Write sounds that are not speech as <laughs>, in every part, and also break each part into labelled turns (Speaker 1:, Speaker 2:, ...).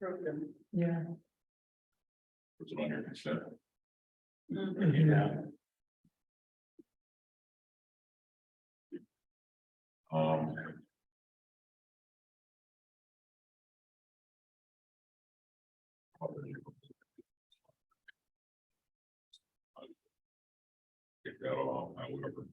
Speaker 1: program.
Speaker 2: Yeah.
Speaker 3: was it on your consent?
Speaker 1: Mhm.
Speaker 3: uh, Um. Get that along, however.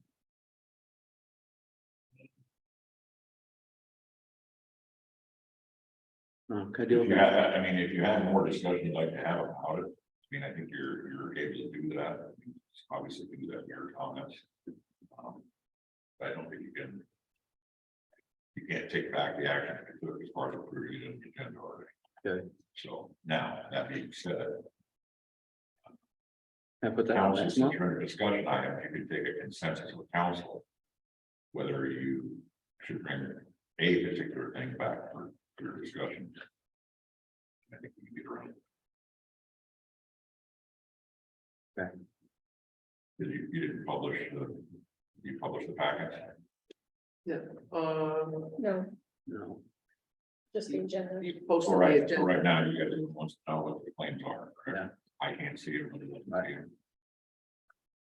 Speaker 4: Um, could I do
Speaker 3: If
Speaker 4: a
Speaker 3: you had, I mean, if you had more discussion you'd like to have about it, I mean, I think you're, you're able to do that. Obviously, do that in your comments. Um, But I don't think you can. You can't take back the action if it's already part of approving it in the agenda already.
Speaker 4: Okay.
Speaker 3: So now, that being said,
Speaker 4: I put that on
Speaker 3: council,
Speaker 4: next
Speaker 3: since
Speaker 4: month?
Speaker 3: you're in a discussion item, you could take a consensus with council. Whether you should bring a particular thing back for your discussion. I think we can get around.
Speaker 4: Okay.
Speaker 3: Did you, you didn't publish the, you published the packet?
Speaker 1: Um,
Speaker 2: No,
Speaker 4: No,
Speaker 2: just in general.
Speaker 1: you post
Speaker 3: So
Speaker 1: the
Speaker 3: right, so
Speaker 1: agenda.
Speaker 3: right now, you guys wants to know what the claims are. correct?
Speaker 4: Yeah.
Speaker 3: I can't see it. really doesn't
Speaker 4: Right.
Speaker 3: see it.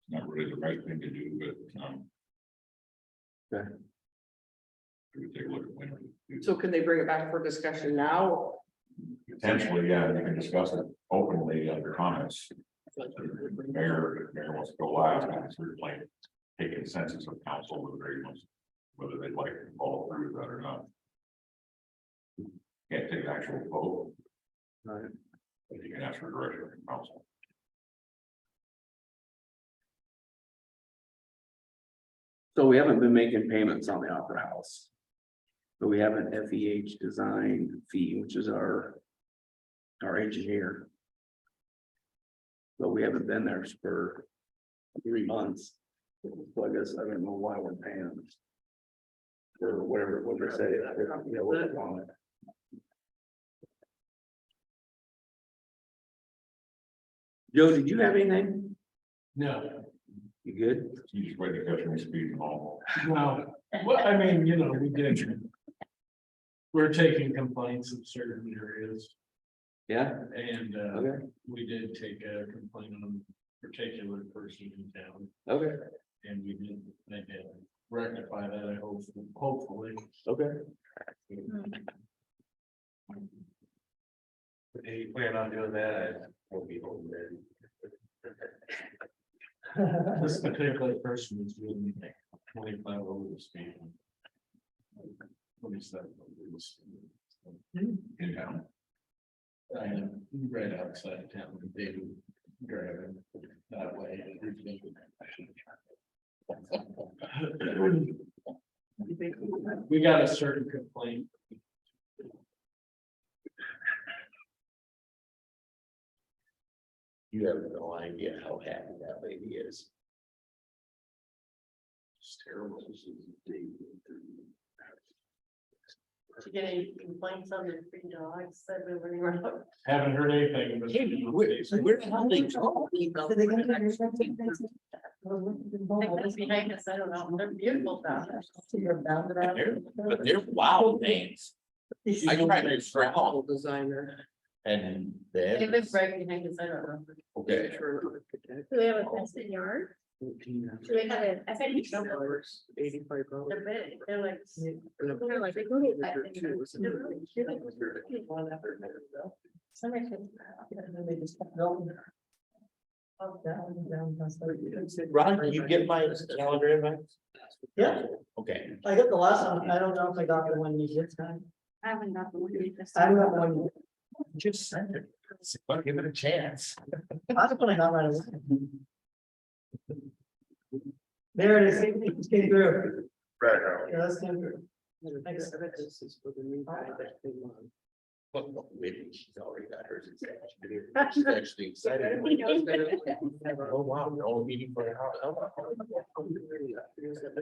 Speaker 3: It's Not really the right thing to do, but, um.
Speaker 4: Okay.
Speaker 3: We would take a look at when. we do.
Speaker 1: So can they bring it back for discussion now?
Speaker 3: Potentially, yeah, you can discuss it openly under comments. The Mayor, if the mayor wants to go last, and it's sort of like, take consensus of council whether they want, whether they'd like to follow through with that or not. Can't take an actual vote.
Speaker 4: Right.
Speaker 3: But you can ask for direction from council.
Speaker 4: so we haven't been making payments on the Opera House. But we have an F E H design fee, which is our. Our engineer. But we haven't been there for three months. So I guess I don't know why we're paying them. Or whatever, it was they say, yeah, what's on it. Joe, did you have anything?
Speaker 5: No,
Speaker 4: You good?
Speaker 3: You just wait to catch me speeding home.
Speaker 5: well, well, I mean, you know, we did. We're taking complaints in certain areas
Speaker 4: Yeah,
Speaker 5: and uh,
Speaker 4: okay,
Speaker 5: we did take a complaint on a particular person in town.
Speaker 4: okay,
Speaker 5: And we did, they did rectify that, I hope, hopefully.
Speaker 4: okay.
Speaker 2: Mm.
Speaker 5: If you plan on doing that, I won't be home then. This particular person was doing like twenty-five over the speed. Twenty-seven. over the speed.
Speaker 3: In town.
Speaker 5: I am right outside of town, they do drive it that way. and everything. We got a certain complaint. You have no idea how happy that lady is. It's terrible.
Speaker 6: Getting complaints on the free dogs that we were running around.
Speaker 5: Haven't heard anything. but-
Speaker 6: Like, that's behind us, I don't know, they're beautiful dogs.
Speaker 7: But they're wild things I tried to scrap all-
Speaker 1: Designer.
Speaker 7: and
Speaker 6: They
Speaker 7: then,
Speaker 6: live right behind us, I don't know.
Speaker 7: okay,
Speaker 8: Do they have a fenced yard? Do they have a, I said,
Speaker 6: <laughs> Each number,
Speaker 1: Eighty-five dollars.
Speaker 6: They're big, they're like.
Speaker 8: they're like, they go to that thing.
Speaker 6: they're really cute. Somebody should-
Speaker 7: Ron, can you get my calendar invite?
Speaker 9: Yeah,
Speaker 7: Okay,
Speaker 9: I got the last one. I don't know if I got the one you just got.
Speaker 8: I haven't got the one. yet.
Speaker 9: I don't got one.
Speaker 7: just send it. Well, Give it a chance.
Speaker 9: I just wanna got right away. There it is. It's getting through.
Speaker 3: Right.
Speaker 9: Yeah, that's getting through.
Speaker 1: I bet this is for the new guy that they want.
Speaker 7: Well, well, maybe she's already got hers. It's actually- She's actually excited. Oh, wow, we're all meeting for an hour. Oh, wow.